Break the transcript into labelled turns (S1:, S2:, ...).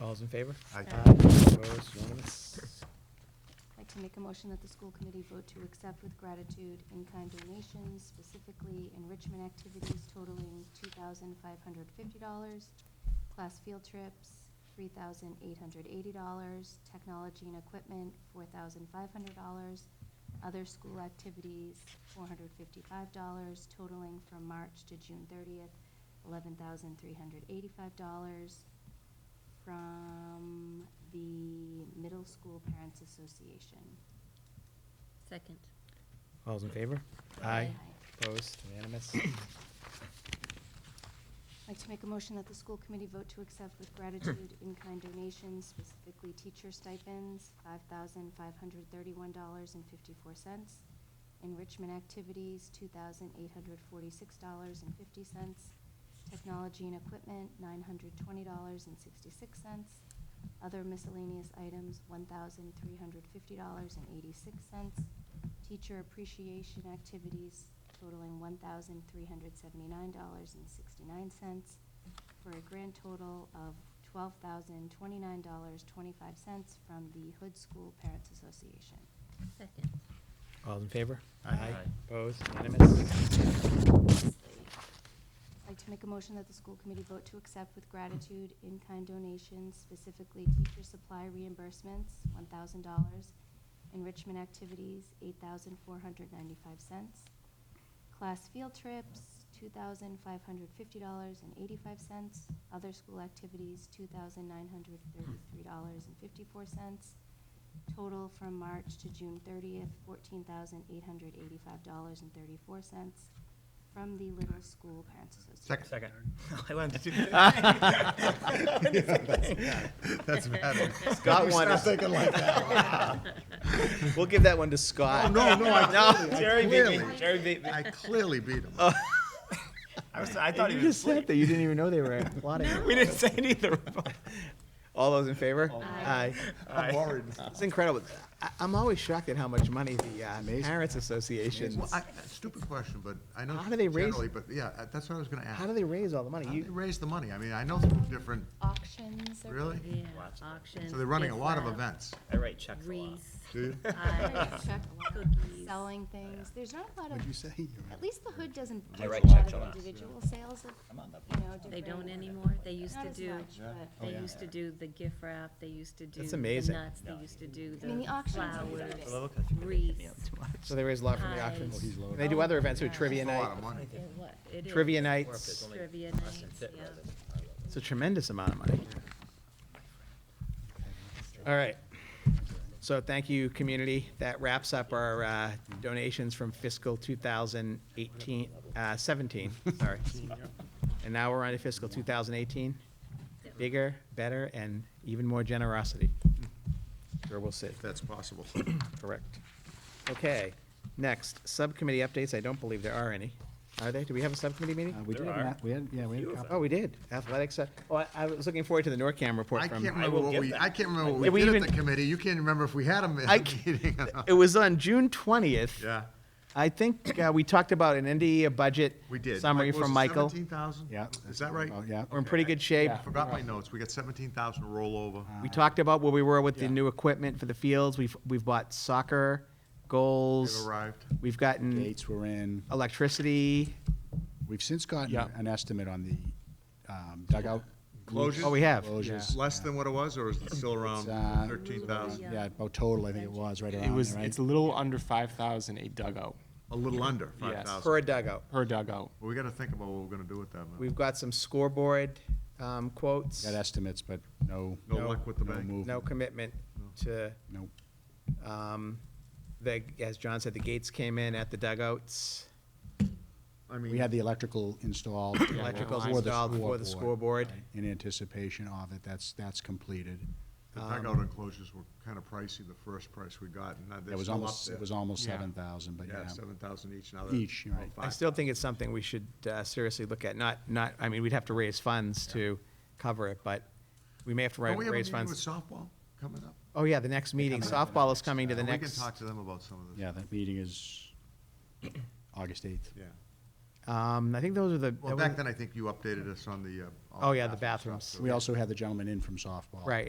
S1: All those in favor?
S2: Aye.
S1: Aye, opposed, unanimous.
S3: I'd like to make a motion that the school committee vote to accept with gratitude in-kind donations, specifically enrichment activities totaling two thousand five hundred fifty dollars, class field trips, three thousand eight hundred eighty dollars, technology and equipment, four thousand five hundred dollars, other school activities, four hundred fifty-five dollars, totaling from March to June thirtieth, eleven thousand three hundred eighty-five dollars, from the Middle School Parents Association.
S4: Second.
S1: All those in favor?
S4: Aye.
S1: Opposed, unanimous.
S3: I'd like to make a motion that the school committee vote to accept with gratitude in-kind donations, specifically teacher stipends, five thousand five hundred thirty-one dollars and fifty-four cents, enrichment activities, two thousand eight hundred forty-six dollars and fifty cents, technology and equipment, nine hundred twenty dollars and sixty-six cents, other miscellaneous items, one thousand three hundred fifty dollars and eighty-six cents, teacher appreciation activities totaling one thousand three hundred seventy-nine dollars and sixty-nine cents for a grand total of twelve thousand twenty-nine dollars twenty-five cents from the Hood School Parents Association.
S4: Second.
S1: All those in favor?
S2: Aye. Aye.
S1: Opposed, unanimous.
S3: Lastly, I'd like to make a motion that the school committee vote to accept with gratitude in-kind donations, specifically teacher supply reimbursements, one thousand dollars, enrichment activities, eight thousand four hundred ninety-five cents, class field trips, two thousand five hundred fifty dollars and eighty-five cents, other school activities, two thousand nine hundred thirty-three dollars and fifty-four cents, Total from March to June thirtieth, fourteen thousand eight hundred eighty-five dollars and thirty-four cents from the Little School Parents Association.
S2: Second.
S5: I wanted to do
S2: That's better.
S1: Scott
S2: You
S1: wanted-
S2: Stop thinking like that.
S1: We'll give that one to Scott.
S2: Oh, no, no, I clearly, I
S5: Jerry beat me.
S2: clearly,
S5: Jerry beat me.
S2: I clearly beat him.
S5: I, was, I thought
S1: You
S5: he was
S1: just said
S5: asleep.
S1: that, you didn't even know they were plotting.
S5: We didn't say neither. of them.
S1: All those in favor?
S4: Aye.
S2: I'm worried.
S1: It's incredible. I, I'm always shocked at how much money the uh,
S2: Amazing.
S1: parents associations,
S2: Well, I, stupid question, but I know
S1: How do they raise-
S2: generally, but yeah, uh, that's what I was gonna ask.
S1: how do they raise all the money?
S2: How do they
S1: You,
S2: raise the money? I mean, I know some different,
S3: Auctions are.
S2: really?
S4: Yeah,
S5: Watch that.
S4: auction.
S2: So they're running a
S4: gift
S2: lot of
S4: wrap,
S2: events.
S5: I write checks a lot.
S4: Wreaths.
S2: Do you?
S4: pies,
S3: Check a lot.
S4: Cookies.
S3: Selling things. There's not a lot of,
S2: What'd you say?
S3: at least the hood doesn't
S5: They
S3: do a
S5: write
S3: lot
S5: checks a
S3: of
S5: lot.
S3: individual sales of,
S5: I'm on the.
S3: you know, different.
S4: They don't anymore. They used
S3: Not
S4: to
S3: as
S4: do,
S3: much,
S5: Oh,
S3: but-
S2: Oh,
S4: they used to do the gift wrap, they used to do
S1: That's
S4: the
S1: amazing.
S4: nuts, they used to do
S3: I mean,
S4: the
S3: the auctions are
S4: flowers,
S3: great.
S5: Well, look, I think they hit me up
S4: wreaths.
S5: too much.
S1: so they raise a lot from the
S4: Pies.
S1: auctions.
S4: Oh, he's
S1: And they do other events, with
S4: Yeah.
S1: trivia
S2: A lot
S1: night,
S2: of money.
S4: Yeah, what? It is.
S1: trivia
S5: Or if
S1: nights.
S5: it's only
S4: Trivia
S5: us
S4: nights,
S5: and Fit
S4: yeah.
S5: rather than-
S1: It's a tremendous amount of money. All right. So thank you, community. That wraps up our uh, donations from fiscal 2018, uh, 17, sorry. And now we're on to fiscal 2018. Bigger, better, and even more generosity. Sure we'll see.
S2: If that's possible.
S1: Correct. Okay, next, subcommittee updates. I don't believe there are any. Are there? Do we have a subcommittee meeting?
S6: Uh, We did have an,
S5: are.
S6: app- we had, yeah, we had a
S5: Few of
S6: couple.
S1: Oh, we did. Athletics, uh, oh, I- I was looking forward to the NORCAM report
S2: I
S1: from.
S2: can't remember
S5: will
S2: what
S5: get
S2: we,
S5: that.
S2: I can't remember
S1: Did
S2: what
S1: we
S2: we did at
S1: even-
S2: the committee. You can't remember if we had a
S1: I
S2: meeting. or not.
S1: It was on June twentieth.
S2: Yeah,
S1: I think uh, we talked about an NDE budget.
S2: we did.
S1: Summary from Michael.
S2: Seventeen thousand?
S6: Yeah.
S2: Is that right?
S6: Oh, Yeah. Uh,
S1: We're in pretty good shape.
S2: I forgot my notes. We got seventeen thousand rollover.
S1: We talked about where we were with the
S6: Yeah.
S1: new equipment for the fields. We've, we've bought soccer, goals.
S2: They've arrived.
S1: We've gotten
S6: Gates were in.
S1: electricity.
S6: We've since gotten
S1: Yeah.
S6: an estimate on the um, dugout.
S2: Closures?
S1: Oh, we have.
S6: Closures.
S2: Less than what it was, or is it still around
S6: uh,
S2: thirteen thousand?
S6: Yeah, about total, I think it was, right around
S7: It was,
S6: there, right?
S7: it's a little under five thousand a dugout
S2: A little under five
S7: Yes.
S2: thousand.
S1: For a dugout.
S7: per dugout.
S2: We gotta think about what we're gonna do with that. man.
S1: We've got some scoreboard um, quotes.
S6: Got estimates, but no,
S2: No
S1: no-
S2: luck with the
S6: no
S2: bank.
S6: move.
S1: No commitment to,
S6: No.
S1: um, the, as John said, the gates came in at the dugouts.
S2: I mean,
S6: We had the electrical installed.
S1: Electricals
S6: for the
S1: installed for the scoreboard.
S6: right, In anticipation of it, that's, that's completed.
S2: the dugout enclosures were kinda pricey, the first price we got, and now
S6: Um, It
S2: they're
S6: was
S2: still up
S6: almost,
S2: there.
S6: it was almost
S7: Yeah.
S6: seven thousand, but
S2: Yeah,
S6: yeah.
S2: seven thousand each, now
S6: Each,
S2: they're
S6: right.
S1: I
S2: five.
S1: still think it's something we should uh, seriously look at, not, not, I mean, we'd have to raise funds to cover it, but we may have to ra-
S2: Don't we have a
S1: raise
S2: meeting with
S1: funds.
S2: softball coming up?
S1: Oh, yeah, the next meeting,
S6: coming up the
S1: softball is coming to the
S2: We can
S1: next,
S2: talk to them about some of this.
S6: Yeah, that meeting is August eighth.
S2: Yeah.
S1: Um, I think those are the. that
S2: Well,
S1: was-
S2: back then, I think you updated us on the. uh, all
S1: Oh, yeah, the
S2: bathroom
S1: bathrooms.
S2: stuff, so-
S6: We also had the gentleman in from softball.
S1: Right,